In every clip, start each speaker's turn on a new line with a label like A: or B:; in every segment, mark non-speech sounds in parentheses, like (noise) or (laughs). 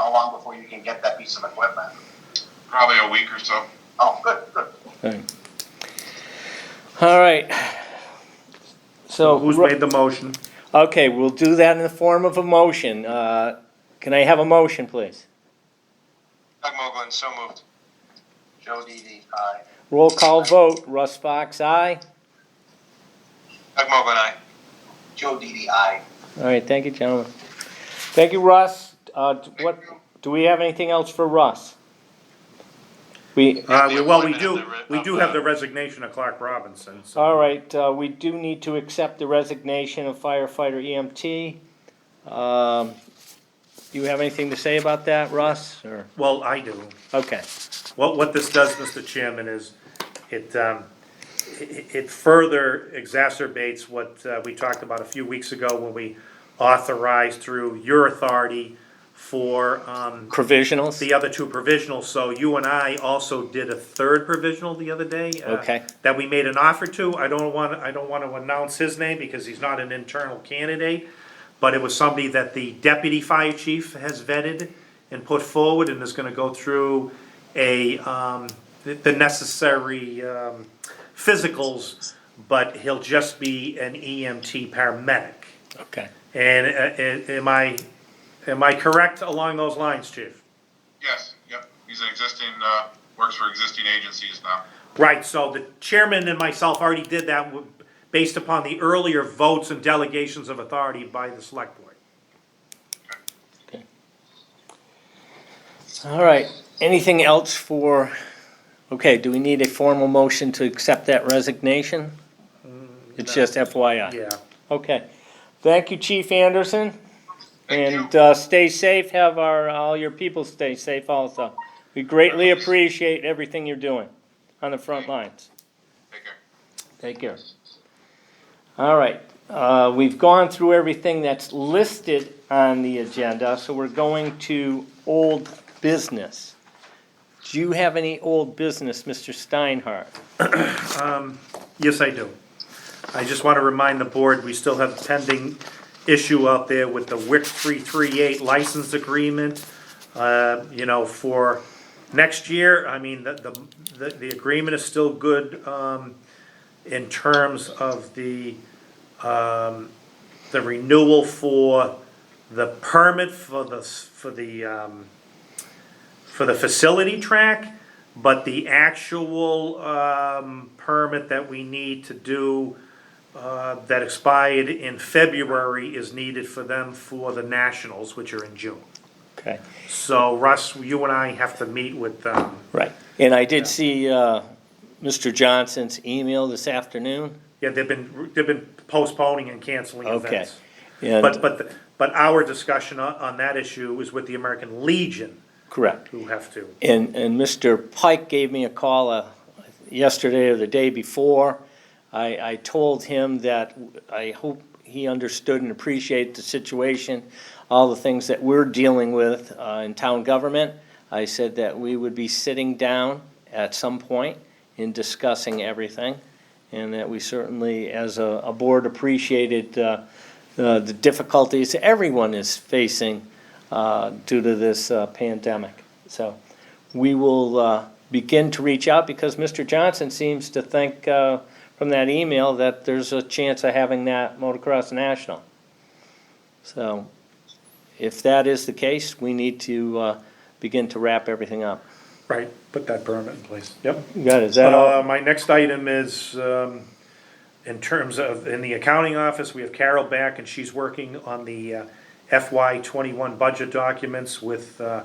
A: long before you can get that piece of equipment?
B: Probably a week or so.
A: Oh, good, good.
C: Okay. All right. So.
D: Who's made the motion?
C: Okay, we'll do that in the form of a motion. Uh, Can I have a motion, please?
B: Doug Mogul, so moved.
A: Joe Didi, aye.
C: Roll call vote, Russ Fox, aye.
B: Doug Mogul, aye.
A: Joe Didi, aye.
C: All right, thank you, gentlemen. Thank you, Russ. Uh, d- What,
B: Thank you.
C: do we have anything else for Russ? We,
D: Uh, we- well, we
B: appointment
D: do,
B: of the re-
D: we
B: of
D: do
B: the-
D: have the resignation of Clark Robinson, so.
C: all right, uh, we do need to accept the resignation of firefighter EMT. Um, Do you have anything to say about that, Russ, or,
D: Well, I do.
C: okay.
D: What, what this does, Mr. Chairman, is it, um, it it further exacerbates what uh, we talked about a few weeks ago when we authorized through your authority for um,
C: Provisionals?
D: the other two provisionals. So you and I also did a third provisional the other day. uh,
C: Okay.
D: That we made an offer to. I don't want, I don't want to announce his name because he's not an internal candidate. But it was somebody that the deputy fire chief has vetted and put forward and is going to go through a, um, the- the necessary, um, physicals. But he'll just be an EMT paramedic.
C: Okay.
D: And, uh, am I, am I correct along those lines, chief?
B: Yes, yep. He's an existing, uh, works for existing agencies now.
D: Right, so the chairman and myself already did that w- based upon the earlier votes and delegations of authority by the select board.
C: All right, anything else for, okay, do we need a formal motion to accept that resignation? It's just FYI.
D: Yeah.
C: Okay. Thank you, Chief Anderson.
B: Thank you.
C: And uh, stay safe, have our, all your people stay safe also. We greatly appreciate everything you're doing on the front lines.
B: Take care.
C: Take care. All right, uh, we've gone through everything that's listed on the agenda, so we're going to old business. Do you have any old business, Mr. Steinhardt?
D: Yes, I do. I just want to remind the board, we still have pending issue out there with the WIC 338 license agreement. Uh, You know, for next year, I mean, the, the- the, the agreement is still good um, in terms of the, um, the renewal for the permit for the, s- for the, um, for the facility track, but the actual um, permit that we need to do uh, that expired in February is needed for them for the nationals, which are in June.
C: Okay,
D: So Russ, you and I have to meet with them.
C: right. And I did see uh, Mr. Johnson's email this afternoon.
D: Yeah, they've been, they've been postponing and canceling
C: Okay.
D: events. But,
C: And,
D: but, the- but our discussion on, on that issue is with the American Legion,
C: correct.
D: who have to.
C: And, and Mr. Pike gave me a call uh, yesterday or the day before. I, I told him that I hope he understood and appreciated the situation, all the things that we're dealing with uh, in town government. I said that we would be sitting down at some point in discussing everything, and that we certainly, as a, a board, appreciated uh, uh, the difficulties everyone is facing uh, due to this uh, pandemic. So we will uh, begin to reach out because Mr. Johnson seems to think uh, from that email that there's a chance of having that motocross national. So if that is the case, we need to uh, begin to wrap everything up.
D: Right, put that permit in place. Yep.
C: You got it, is that all?
D: Uh, my next item is, um, in terms of, in the accounting office, we have Carol back and she's working on the uh, FY twenty-one budget documents with, uh,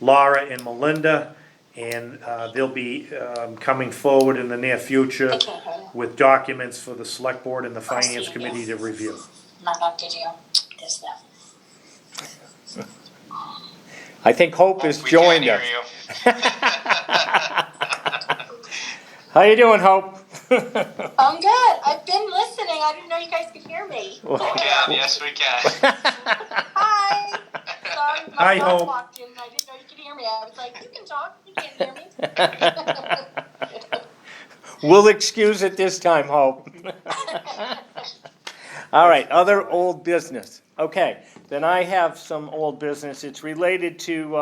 D: Laura and Melinda. And, uh, they'll be, um, coming forward in the near future with documents for the select board and the finance committee to review.
E: Not up did you? There's nothing.
C: I think Hope has
B: We can't
C: joined
B: hear
C: us.
B: you.
C: How you doing, Hope? (laughs)
E: I'm good. I've been listening. I didn't know you guys could hear
D: (laughs)
E: me.
B: (laughs) Yeah, yes, we can.
E: Hi. Sorry, my
D: Hi,
E: dog
D: Hope.
E: walked in. and I didn't know you could hear me. I was like, you can talk. You can't hear
D: (laughs)
E: me. (laughs)
C: We'll excuse it this time, Hope. (laughs) All right, other old business. Okay, then I have some old business. It's related to, uh,